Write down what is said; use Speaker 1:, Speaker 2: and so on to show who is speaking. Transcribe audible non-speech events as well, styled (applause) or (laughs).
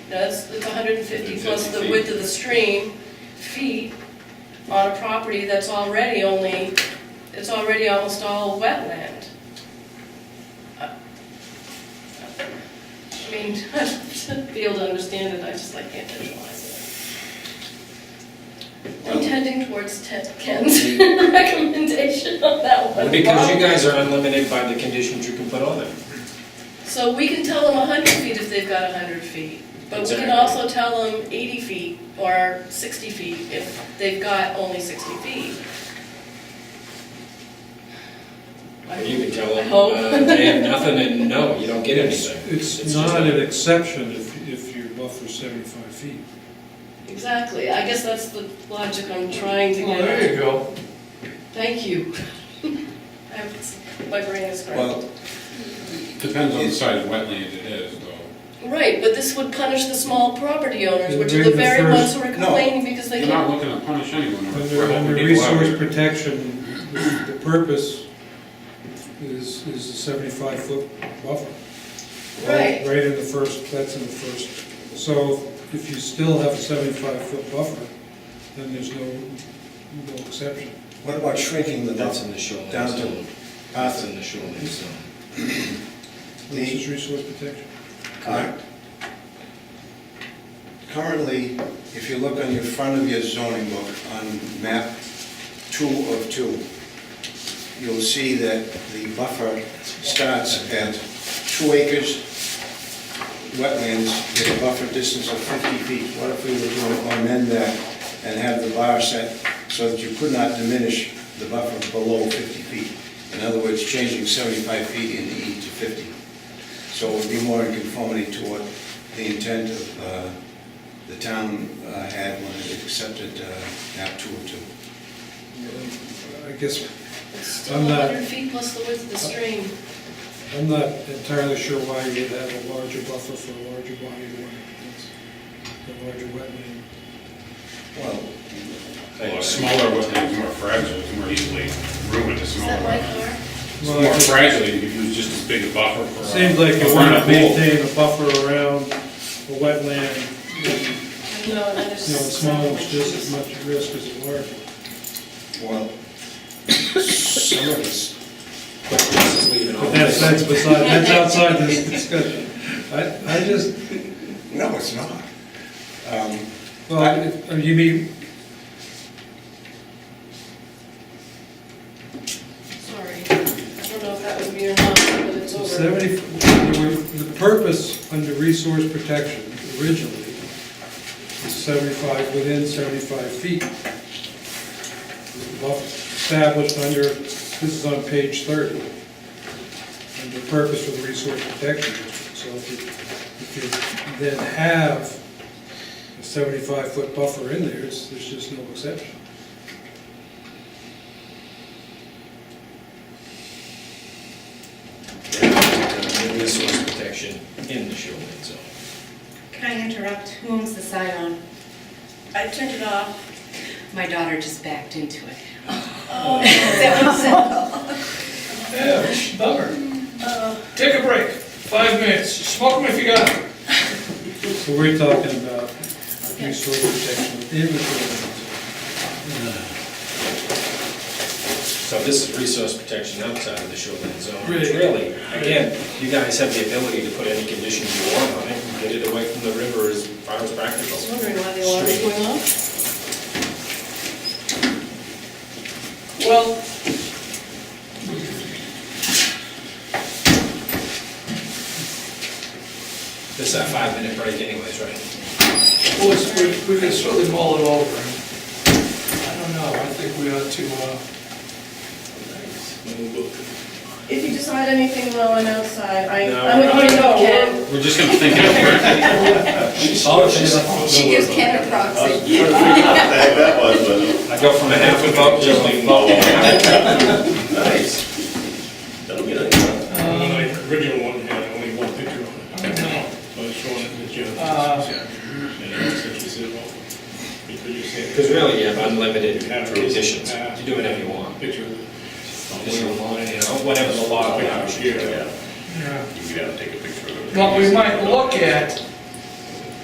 Speaker 1: does, it's hundred and fifty plus the width of the stream, feet, on a property that's already only, it's already almost all wetland. I mean, (laughs) to be able to understand it, I just like can't visualize it. I'm tending towards Ted- Ken's (laughs) recommendation on that one.
Speaker 2: Because you guys are unlimited by the conditions you can put on them.
Speaker 1: So we can tell them hundred feet if they've got hundred feet, but we can
Speaker 2: Exactly.
Speaker 1: also tell them eighty feet or sixty feet if they've got only sixty feet.
Speaker 2: You can tell
Speaker 1: I
Speaker 2: them,
Speaker 1: hope.
Speaker 2: uh, they have nothing and no, you don't get anything.
Speaker 3: It's
Speaker 2: It's
Speaker 3: not
Speaker 2: just-
Speaker 3: an exception if, if you buffer seventy-five feet.
Speaker 1: Exactly, I guess that's the logic I'm trying to
Speaker 4: Well,
Speaker 1: get at.
Speaker 4: there you go.
Speaker 1: Thank you. (laughs) I'm- My brain is scrambled.
Speaker 5: Depends on the size of wetland it is, though.
Speaker 1: Right, but this would punish the small property owners,
Speaker 3: It'd
Speaker 1: which are
Speaker 3: bring
Speaker 1: the
Speaker 3: the
Speaker 1: very
Speaker 3: first-
Speaker 1: ones who are
Speaker 5: No,
Speaker 1: complaining because they
Speaker 5: We're not
Speaker 1: can't.
Speaker 5: looking to punish anyone. We're
Speaker 3: Under,
Speaker 5: helping
Speaker 3: under
Speaker 5: people out.
Speaker 3: resource protection, the purpose is, is the seventy-five foot buffer.
Speaker 1: Right.
Speaker 3: Right in the first, that's in the first, so if you still have a seventy-five foot buffer, then there's no, no exception.
Speaker 6: What about shrinking the
Speaker 7: That's in
Speaker 6: buffer
Speaker 7: the shoreline
Speaker 6: down
Speaker 7: zone.
Speaker 6: to
Speaker 7: That's
Speaker 6: half
Speaker 7: in the shoreline zone.
Speaker 3: This is resource protection.
Speaker 6: Correct. Currently, if you look on your front of your zoning book, on map two of two, you'll see that the buffer starts at two acres wetlands with a buffer distance of 50 feet. What if we were to amend that and have the bar set so that you could not diminish the buffer below 50 feet? In other words, changing 75 feet in the E to 50. So it would be more in conformity to what the intent of uh, the town uh, had when it accepted uh, map 202.
Speaker 3: I guess,
Speaker 1: It's still
Speaker 3: I'm not-
Speaker 1: hundred feet plus the width of the stream.
Speaker 3: I'm not entirely sure why you'd have a larger buffer for a larger body of water, That's a larger wetland.
Speaker 6: Well,
Speaker 5: Well, a Smaller wetland is more fragile, it's more easily ruined, a
Speaker 1: Is
Speaker 5: smaller.
Speaker 1: that my
Speaker 5: wetland.
Speaker 1: car?
Speaker 5: It's
Speaker 3: Well,
Speaker 5: more
Speaker 3: I-
Speaker 5: fragile, you could use just as big a buffer for. a-
Speaker 3: Seems like
Speaker 5: for
Speaker 3: you want
Speaker 5: a
Speaker 3: to
Speaker 5: pool.
Speaker 3: maintain a buffer around a wetland,
Speaker 1: No, that
Speaker 3: you know, small is just as much at risk as a large.
Speaker 6: well, (coughs) some of us
Speaker 2: Just leave it
Speaker 3: But
Speaker 2: on.
Speaker 3: that's, that's beside, that's outside this discussion. I, I just,
Speaker 6: No, it's not. Um,
Speaker 3: well, if- you mean,
Speaker 1: Sorry, I don't know if that was me or not, but it's over.
Speaker 3: seventy, the purpose under resource protection originally is seventy-five, within seventy-five feet. Well, Established under, this is on page thirty. and the purpose of the resource protection district. So if you, if you then have a seventy-five foot buffer in there, it's, there's just no exception.
Speaker 2: Uh, Resource protection in the shoreline zone.
Speaker 8: Can I interrupt? Who owns the sign on?
Speaker 1: I turned it off.
Speaker 8: My daughter just backed into it.
Speaker 1: Oh.
Speaker 8: (laughs)
Speaker 4: Yeah, bummer. Take a break, five minutes, smoke them if you got them.
Speaker 3: So we're talking about resource protection within the shoreline
Speaker 2: So this is resource protection outside of the shoreline zone.
Speaker 4: Really?
Speaker 2: Really, again, you guys have the ability to put any conditions you want on it, and get it away from the river as far as
Speaker 1: I was
Speaker 2: practical.
Speaker 1: wondering why the alarm was going off.
Speaker 4: Well,
Speaker 2: This is a five-minute break anyways, right?
Speaker 4: well, it's- we we can certainly mull it over. I don't know, I think we ought to, uh,
Speaker 1: If you decide anything while I'm outside, I,
Speaker 2: No,
Speaker 1: I'm
Speaker 2: we're
Speaker 1: going to
Speaker 4: not.
Speaker 1: Ken.
Speaker 5: We're just gonna think it over.
Speaker 8: She gives Ken a proxy.
Speaker 9: That was, wasn't
Speaker 2: I go from a half a vote to a vote.
Speaker 9: it? Nice. Don't get it.
Speaker 10: The Uh, original one had only one picture on it. So it's showing it with you. And
Speaker 2: Uh,
Speaker 10: I said, she said, well, because you said.
Speaker 2: Because really, you have unlimited
Speaker 10: You have
Speaker 2: conditions,
Speaker 10: uh,
Speaker 2: you do whatever you want.
Speaker 10: Picture. of it.
Speaker 2: Just, you know, Whatever the law allows you.
Speaker 9: You
Speaker 10: Yeah.
Speaker 9: could have to take a picture of it.
Speaker 4: what we might look at